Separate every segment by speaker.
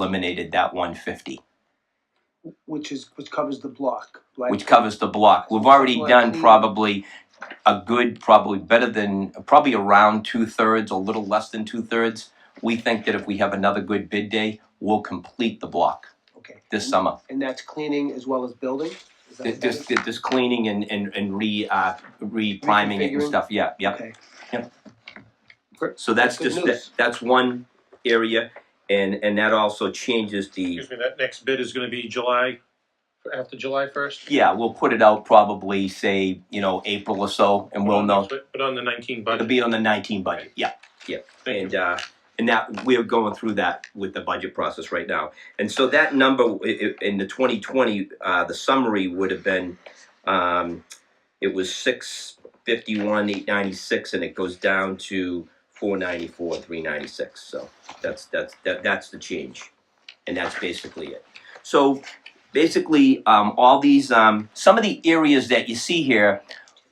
Speaker 1: eliminated that 150,
Speaker 2: which is, which covers the block, right?
Speaker 1: which covers the block. We've already done probably a good, probably better than, probably around two thirds, a little less than two thirds. We think that if we have another good bid day, we'll complete the block
Speaker 2: Okay.
Speaker 1: this summer.
Speaker 2: And that's cleaning as well as building? Is that
Speaker 1: Th-
Speaker 2: what that
Speaker 1: This,
Speaker 2: is?
Speaker 1: this, cleaning and, and, and re, uh, re-priming it and
Speaker 2: Reconfiguring?
Speaker 1: stuff, yeah, yeah.
Speaker 2: Okay.
Speaker 1: So that's
Speaker 2: That's
Speaker 1: just,
Speaker 2: good
Speaker 1: that-
Speaker 2: news.
Speaker 1: that's one area, and, and that also changes the,
Speaker 3: Excuse me, that next bid is gonna be July, after July first?
Speaker 1: yeah, we'll put it out probably, say, you know, April or so, and we'll know.
Speaker 3: But on the nineteen
Speaker 1: It'll
Speaker 3: budget,
Speaker 1: be on the nineteen budget, yeah.
Speaker 3: thank you.
Speaker 1: And, uh, and that, we're going through that with the budget process right now. And so that number, i- i- in the twenty twenty, uh, the summary would have been, um, it was six fifty-one, eight ninety-six, and it goes down to four ninety-four, three ninety-six, so that's, that's, that, that's the change. And that's basically it. So, basically, um, all these, um, some of the areas that you see here,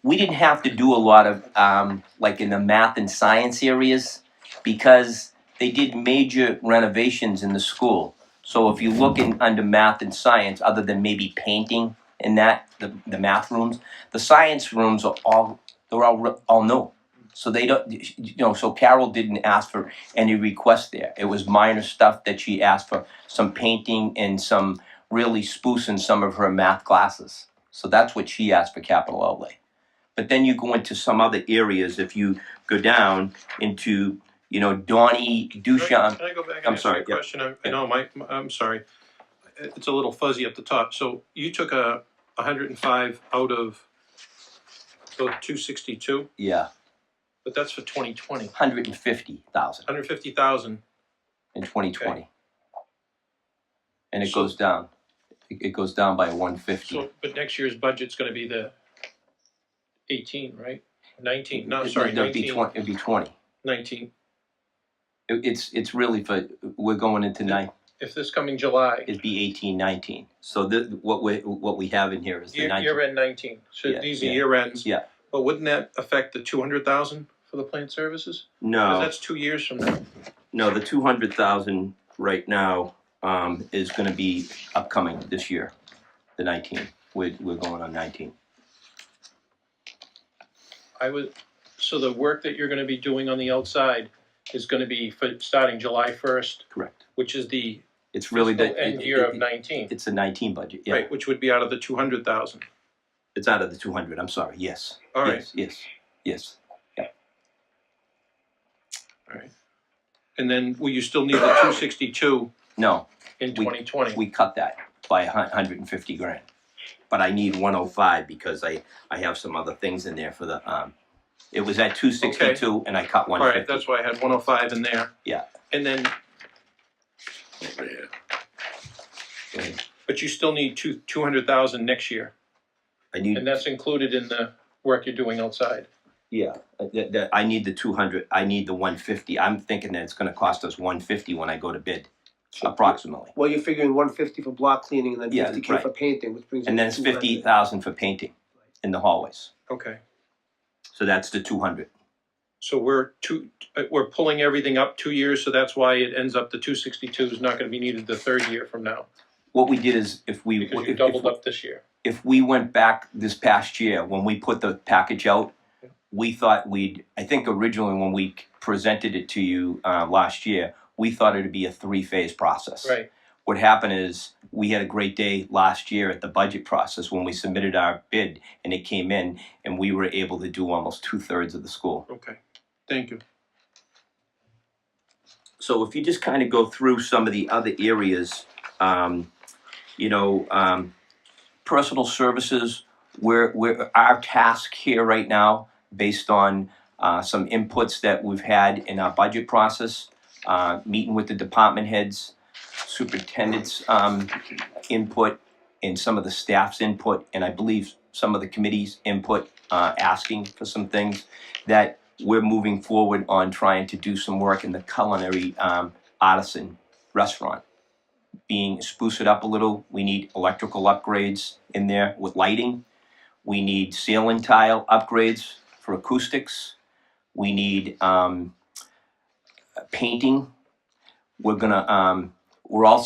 Speaker 1: we didn't have to do a lot of, um, like in the math and science areas because they did major renovations in the school. So if you look in under math and science, other than maybe painting and that, the, the math rooms, the science rooms are all they're all re- all new. So they don't, you know. So Carol didn't ask for any requests there. It was minor stuff that she asked for, some painting and some really spoofing some of her math classes. So that's what she asked for capital outlay. But then you go into some other areas. If you go down into, you know, Donnie
Speaker 3: Can I
Speaker 1: Duchamp.
Speaker 3: can I go
Speaker 1: I'm
Speaker 3: back and ask you
Speaker 1: sorry,
Speaker 3: a
Speaker 1: yeah.
Speaker 3: question? I- I
Speaker 1: Yeah.
Speaker 3: know, Mike, I'm sorry. It's a little fuzzy at the top. So you took a hundred and five out of two sixty-two,
Speaker 1: Yeah,
Speaker 3: but that's for twenty twenty.
Speaker 1: hundred and fifty thousand
Speaker 3: Hundred fifty thousand,
Speaker 1: in twenty twenty. And it goes down. It it goes down by one fifty.
Speaker 3: so, but next year's budget's gonna be the eighteen, right? Nineteen, no, sorry,
Speaker 1: It'd be
Speaker 3: nineteen,
Speaker 1: twenty, it'd be twenty.
Speaker 3: nineteen.
Speaker 1: It- It's, it's really for, we're going into nine,
Speaker 3: If this coming July,
Speaker 1: it'd be eighteen, nineteen. So the, what we, what we have in here is the
Speaker 3: Year,
Speaker 1: nineteen.
Speaker 3: year end nineteen, so
Speaker 1: Yeah,
Speaker 3: these are
Speaker 1: yeah.
Speaker 3: year ends.
Speaker 1: Yeah.
Speaker 3: But wouldn't that affect the two hundred thousand for the plant services? 'Cause
Speaker 1: No,
Speaker 3: that's two years from now.
Speaker 1: no, the two hundred thousand right now, um, is gonna be upcoming this year, the nineteen. We're, we're going on nineteen.
Speaker 3: I would, so the work that you're gonna be doing on the outside is gonna be for, starting July first,
Speaker 1: Correct.
Speaker 3: which is the
Speaker 1: It's really
Speaker 3: fiscal
Speaker 1: the.
Speaker 3: end
Speaker 1: it-
Speaker 3: year of
Speaker 1: it-
Speaker 3: nineteen,
Speaker 1: It's a nineteen budget, yeah.
Speaker 3: right, which would be out of the two hundred thousand.
Speaker 1: It's out of the two hundred, I'm sorry, yes.
Speaker 3: All right,
Speaker 1: Yes, yes, yes.
Speaker 3: all right. And then will you still need the two sixty-two
Speaker 1: No,
Speaker 3: in
Speaker 1: We-
Speaker 3: twenty twenty?
Speaker 1: we cut that by a hun- hundred and fifty grand. But I need one oh five because I, I have some other things in there for the, um, it was at two sixty-two and I cut one
Speaker 3: All right,
Speaker 1: fifty.
Speaker 3: that's why I had one oh five in there.
Speaker 1: Yeah.
Speaker 3: And then. But you still need two, two hundred thousand next year,
Speaker 1: I need,
Speaker 3: and that's included in the work you're doing outside.
Speaker 1: yeah, uh, that, that, I need the two hundred, I need the one fifty. I'm thinking that it's gonna cost us one fifty when I go to bid, approximately.
Speaker 2: Well, you're figuring one fifty for block cleaning and then
Speaker 1: Yeah,
Speaker 2: fifty K
Speaker 1: right.
Speaker 2: for painting, which brings you
Speaker 1: And then
Speaker 2: to
Speaker 1: it's
Speaker 2: two hundred.
Speaker 1: fifty thousand for painting in the hallways.
Speaker 3: Okay.
Speaker 1: So that's the two hundred.
Speaker 3: So we're two, uh, we're pulling everything up two years, so that's why it ends up the two sixty-two is not gonna be needed the third year from now,
Speaker 1: What we did is if we.
Speaker 3: because you
Speaker 1: if- if-
Speaker 3: doubled up this year.
Speaker 1: if we went back this past year, when we put the package out, we thought we'd, I think originally when we presented it to you uh, last year, we thought it'd be a three-phase process.
Speaker 3: Right,
Speaker 1: What happened is, we had a great day last year at the budget process when we submitted our bid and it came in and we were able to do almost two-thirds of the school.
Speaker 3: okay, thank you.
Speaker 1: So if you just kind of go through some of the other areas, um, you know, um, personal services, where, where our task here right now, based on uh, some inputs that we've had in our budget process, uh, meeting with the department heads, superintendent's um, input, and some of the staff's input, and I believe some of the committee's input, uh, asking for some things that we're moving forward on trying to do some work in the culinary um, artisan restaurant. Being spruce it up a little, we need electrical upgrades in there with lighting. We need ceiling tile upgrades for acoustics. We need um, painting. We're gonna um, We're also